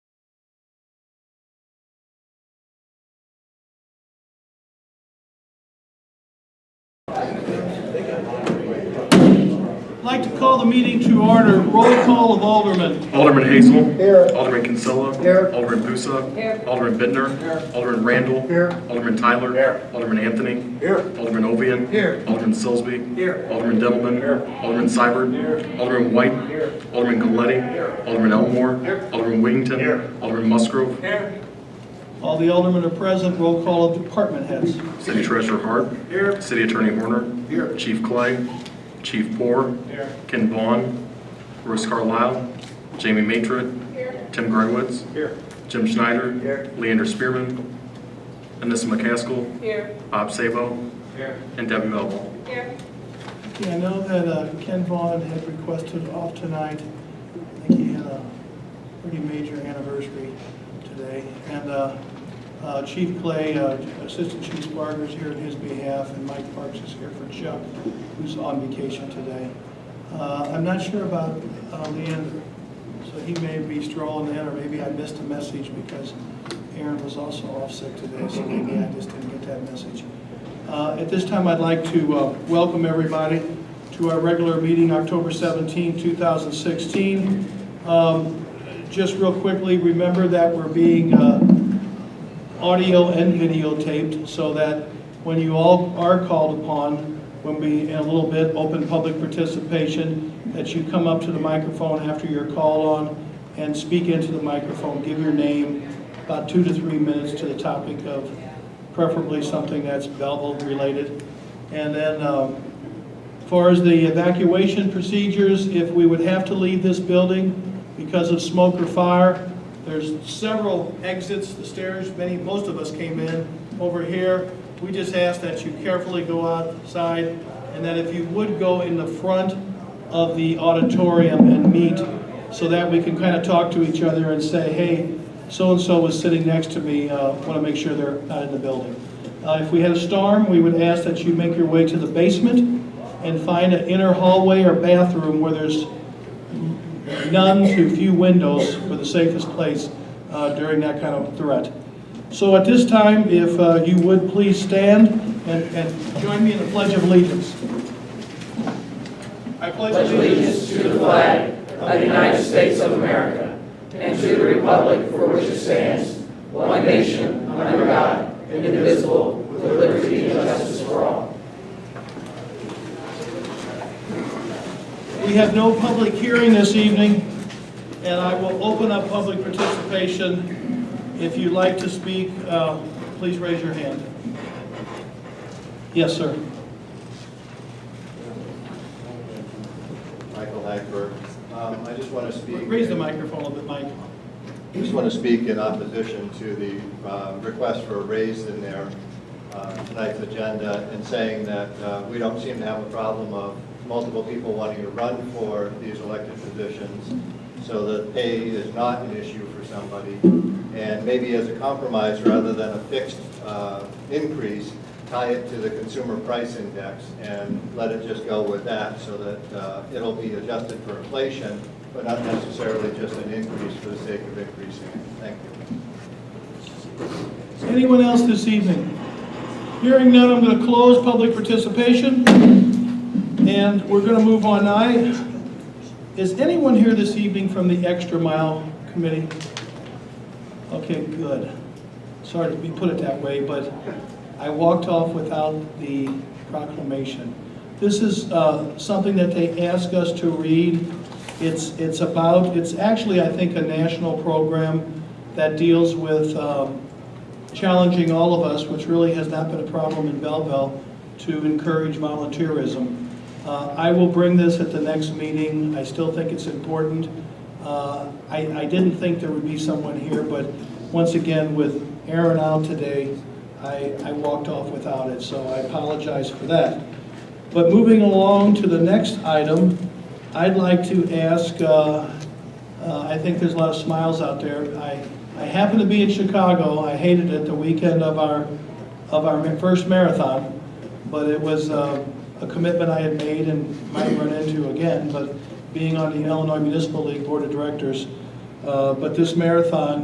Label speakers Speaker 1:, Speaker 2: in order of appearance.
Speaker 1: I'd like to call the meeting to order. Roll call of Alderman.
Speaker 2: Alderman Hazel.
Speaker 3: Here.
Speaker 2: Alderman Kinsella.
Speaker 3: Here.
Speaker 2: Alderman Pusa. Alderman Bittner. Alderman Randall.
Speaker 3: Here.
Speaker 2: Alderman Tyler. Alderman Anthony.
Speaker 3: Here.
Speaker 2: Alderman Ovian.
Speaker 3: Here.
Speaker 2: Alderman Sillsby.
Speaker 3: Here.
Speaker 2: Alderman Demmelman. Alderman Seibert. Alderman White. Alderman Galetti. Alderman Elmore. Alderman Wiggington. Alderman Musgrove.
Speaker 1: All the aldermen are present. Roll call of department heads.
Speaker 2: City Treasurer Hart. City Attorney Horner. Chief Clay. Chief Poor. Ken Vaughn. Bruce Carlisle. Jamie Matrit. Tim Grunwitz. Jim Schneider. Leander Spearman. Anissa McCaskill.
Speaker 4: Here.
Speaker 2: Bob Sabo. And Debbie Melville.
Speaker 4: Here.
Speaker 1: Okay, I know that uh, Ken Vaughn had requested off tonight. I think he had a pretty major anniversary today. And uh, uh, Chief Clay, uh, Assistant Chief Barger is here on his behalf, and Mike Parks is here for Chuck, who's on vacation today. Uh, I'm not sure about uh, Leander, so he may be strolling in, or maybe I missed a message because Aaron was also off sick today, so maybe I just didn't get that message. Uh, At this time, I'd like to uh, welcome everybody to our regular meeting, October 17, 2016. Um, Just real quickly, remember that we're being uh, audio and videotaped so that when you all are called upon, when we, in a little bit, open public participation, that you come up to the microphone after your call on and speak into the microphone, give your name, about two to three minutes to the topic of preferably something that's Belleville related. And then, um, as far as the evacuation procedures, if we would have to leave this building because of smoke or fire, there's several exits, the stairs, many, most of us came in over here. We just ask that you carefully go outside, and that if you would go in the front of the auditorium and meet, so that we can kind of talk to each other and say, hey, so-and-so was sitting next to me, want to make sure they're not in the building. Uh, If we had a storm, we would ask that you make your way to the basement, and find an inner hallway or bathroom where there's none to few windows for the safest place uh, during that kind of threat. So at this time, if uh, you would please stand and, and join me in the Pledge of Allegiance. I pledge
Speaker 5: allegiance to the flag of the United States of America and to the republic for which it stands, one nation, under God, indivisible, with liberty and justice for all.
Speaker 1: We have no public hearing this evening, and I will open up public participation. If you'd like to speak, uh, please raise your hand. Yes, sir.
Speaker 6: Michael Hackberg. Um, I just want to speak.
Speaker 1: Raise the microphone a bit, Mike.
Speaker 6: I Just want to speak in opposition to the uh, request for a raise in their uh, tonight's agenda and saying that uh, we don't seem to have a problem of multiple people wanting to run for these elected positions, so that pay is not an issue for somebody. And maybe as a compromise, rather than a fixed uh, increase, tie it to the consumer price index and let it just go with that so that uh, it'll be adjusted for inflation, but not necessarily just an increase for the sake of increasing it. Thank you.
Speaker 1: Anyone else this evening? Hearing none, I'm going to close public participation, and we're going to move on. I, is anyone here this evening from the Extra Mile Committee? Okay, good. Sorry to be put it that way, but I walked off without the proclamation. This is uh, something that they ask us to read. It's, it's about, it's actually, I think, a national program that deals with um, challenging all of us, which really has not been a problem in Belleville, to encourage volunteerism. Uh, I will bring this at the next meeting. I still think it's important. Uh, I, I didn't think there would be someone here, but once again, with Aaron out today, I, I walked off without it, so I apologize for that. But moving along to the next item, I'd like to ask, uh, uh, I think there's a lot of smiles out there. I, I happened to be in Chicago. I hated it the weekend of our, of our ma- first marathon, but it was uh, a commitment I had made and might run into again, but being on the Illinois Municipal League Board of Directors. uh, But this marathon